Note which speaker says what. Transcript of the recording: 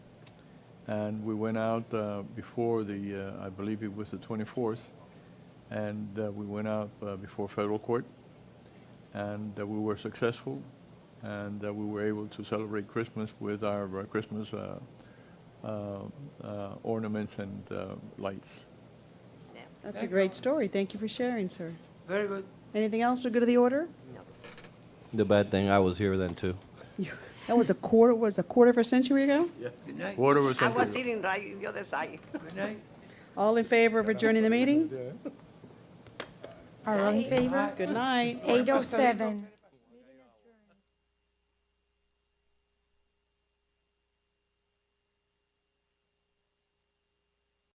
Speaker 1: And we went out uh, before the, uh, I believe it was the 24th, and uh, we went out uh, before federal court, and uh, we were successful, and uh, we were able to celebrate Christmas with our uh, Christmas uh, uh, uh, ornaments and uh, lights.
Speaker 2: That's a great story. Thank you for sharing, sir.
Speaker 3: Very good.
Speaker 2: Anything else to go to the order?
Speaker 4: The bad thing, I was here then too.
Speaker 2: That was a quarter, was a quarter of a century ago?
Speaker 3: Good night.
Speaker 1: Quarter of a
Speaker 5: I
Speaker 1: century.
Speaker 5: was sitting right in the other side.
Speaker 3: Good night.
Speaker 2: All in favor of adjourning the meeting? Are all in favor? Good night.
Speaker 6: 807.